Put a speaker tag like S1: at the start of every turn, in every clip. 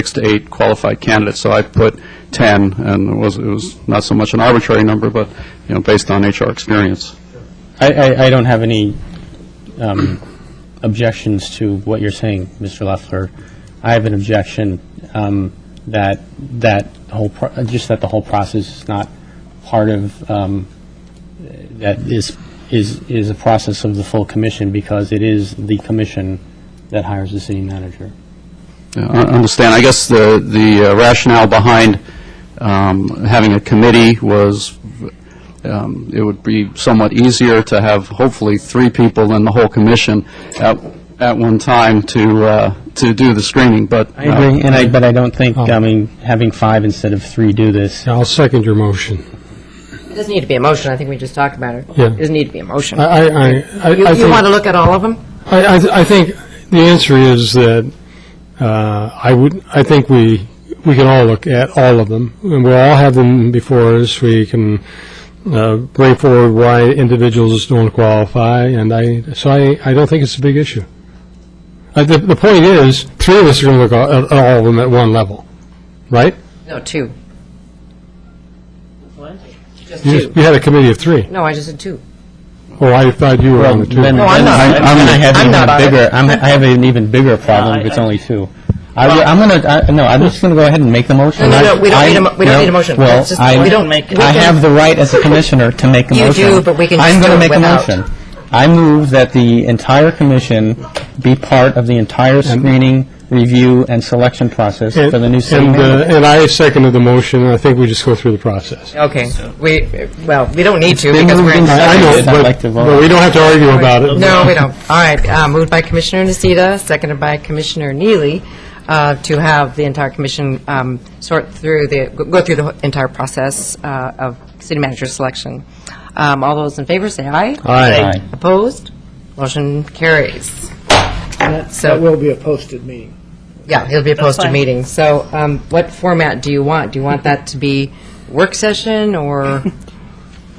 S1: six to eight qualified candidates, so I put 10, and it was, it was not so much an arbitrary number, but, you know, based on HR experience.
S2: I, I, I don't have any um, objections to what you're saying, Mr. Leffler. I have an objection um, that, that whole, pro- uh, just that the whole process is not part of, um, that is, is, is a process of the full commission, because it is the commission that hires the city manager.
S1: Yeah, I I understand. I guess the the uh, rationale behind um, having a committee was, um, it would be somewhat easier to have hopefully three people than the whole commission at at one time to uh, to do the screening, but... uh,
S2: I agree, and I, Oh. but I don't think, I mean, having five instead of three do this,
S3: I'll second your motion.
S4: It doesn't need to be a motion, I think we just talked about it.
S3: Yeah.
S4: It doesn't need to be a motion.
S3: I, I, I, I
S4: You,
S3: I
S4: you want to
S3: think,
S4: look at all of them?
S3: I, I- I think the answer is that, uh, I would, I think we, we can all look at all of them, and we'll all have them before us, we can, uh, bring forward why individuals don't qualify, and I, so I, I don't think it's a big issue. Uh, the, the point is, three of us are gonna look at, at all of them at one level, right?
S4: No, two. What? Just
S3: You
S4: two.
S3: you had a committee of three.
S4: No, I just said two.
S3: Oh, I thought you were on the two.
S2: Then,
S4: No,
S2: then
S4: I'm not.
S2: I-
S4: I'm-
S2: then I have
S4: I'm
S2: even
S4: not
S2: a
S4: on it.
S2: bigger, I'm, I have an even bigger problem if it's only two. I, will- I'm gonna, I, no, I'm just gonna go ahead and make the motion.
S4: No, no, no, we don't
S2: I-
S4: need a mo- we don't
S2: no,
S4: need a motion.
S2: Well,
S4: It's just-
S2: I,
S4: we don't make it.
S2: I
S4: We can-
S2: have the right as a commissioner to make a
S4: You
S2: motion.
S4: do, but we can just do it without.
S2: I'm gonna make a motion. I move that the entire commission be part of the entire screening, review, and selection process for the new city
S3: And, uh,
S2: manager.
S3: And I seconded the motion, and I think we just go through the process.
S4: Okay, we, well, we don't need to
S2: been
S4: because we're
S2: moved
S4: in
S2: in by-
S3: I I
S4: second.
S3: know,
S2: I'd like
S3: but
S2: to vote.
S3: but we don't have to argue about it.
S4: No, we don't. All right, uh, moved by Commissioner Nocita, seconded by Commissioner Neely, uh, to have the entire commission um, sort through the, go through the entire process uh, of city manager selection. Um, All those in favor, say aye.
S3: Aye.
S2: Aye.
S4: Opposed? Motion carries.
S5: That
S4: So-
S5: that will be a posted meeting.
S4: Yeah, it'll be a posted meeting. So um, what format do you want? Do you want that to be work session or,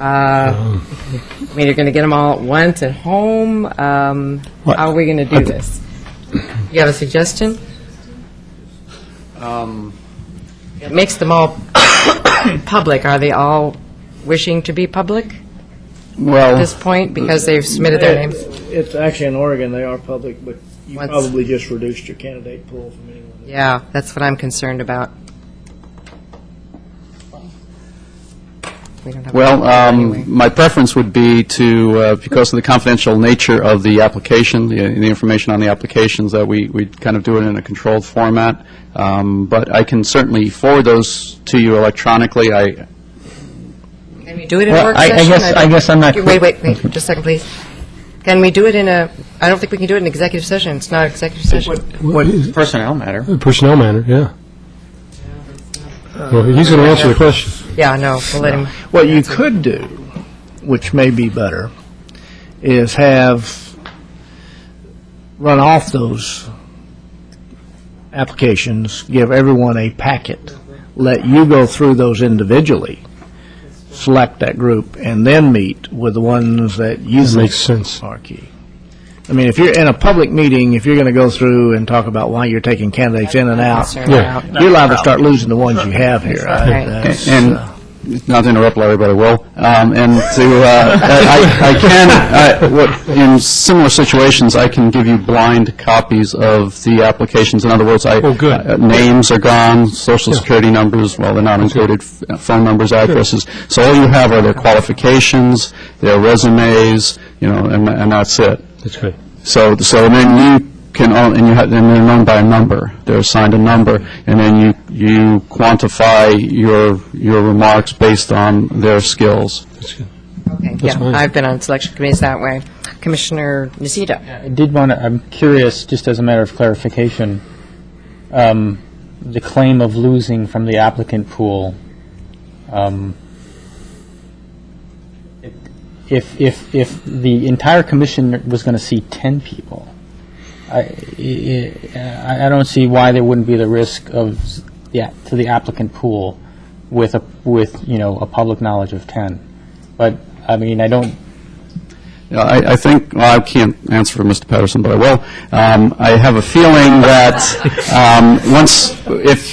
S4: uh, I mean, you're going to get them all at once at home? Um, How are we going to do this? You have a suggestion? It makes them all public. Are they all wishing to be public at
S1: Well,
S4: this point because they've submitted
S5: Uh,
S4: their names?
S5: It's actually in Oregon, they are public, but you
S4: Once-
S5: probably just reduced your candidate pool from anyone.
S4: Yeah, that's what I'm concerned about. We don't have a
S1: Well,
S4: anyway.
S1: um, my preference would be to, uh, because of the confidential nature of the application, the the information on the applications, that we we kind of do it in a controlled format, Um, but I can certainly forward those to you electronically. I,
S4: Can we do it in
S2: Well,
S4: work
S2: I- I
S4: session?
S2: guess- I
S4: don't-
S2: guess I'm not-
S4: Wait, wait, wait, just a second, please. Can we do it in a, I don't think we can do it in executive session, it's not executive session.
S6: Personnel matter.
S3: Personnel matter, yeah. Well, he's going to answer the question.
S4: Yeah, no, we'll let him,
S5: What you could do, which may be better, is have, run off those applications, give everyone a packet, let you go through those individually, select that group, and then meet with the ones that you
S3: That
S5: think
S3: makes sense.
S5: are key. I mean, if you're in a public meeting, if you're going to go through and talk about why you're taking candidates in and out,
S4: concerned about.
S5: you're liable to start losing the ones you have here. I-
S4: Right.
S5: that's,
S1: and,
S5: uh,
S1: not to interrupt Larry, but I will, Um, and to, uh, I I can, I- what- in similar situations, I can give you blind copies of the applications. In other words, I...
S3: Oh, good.
S1: uh, Names are gone, social security numbers, well, they're not included, f- uh, phone numbers, addresses. So all you have are their qualifications, their resumes, you know, and and that's it.
S3: That's great.
S1: So, so then you can, own- and you have, and they're known by a number, they're assigned a number, and then you, you quantify your, your remarks based on their skills.
S3: That's good.
S4: Okay, yeah,
S3: fine.
S4: I've been on selection committees that way. Commissioner Nocita,
S2: I did want to, I'm curious, just as a matter of clarification, um, the claim of losing from the applicant pool, um, if, if, if the entire commission was going to see 10 people, I- I, I I don't see why there wouldn't be the risk of, s- yeah, to the applicant pool with, a with, you know, a public knowledge of 10. But, I mean, I don't,
S1: I I think, well, I can't answer for Mr. Patterson, but I will. Um, I have a feeling that um, once, if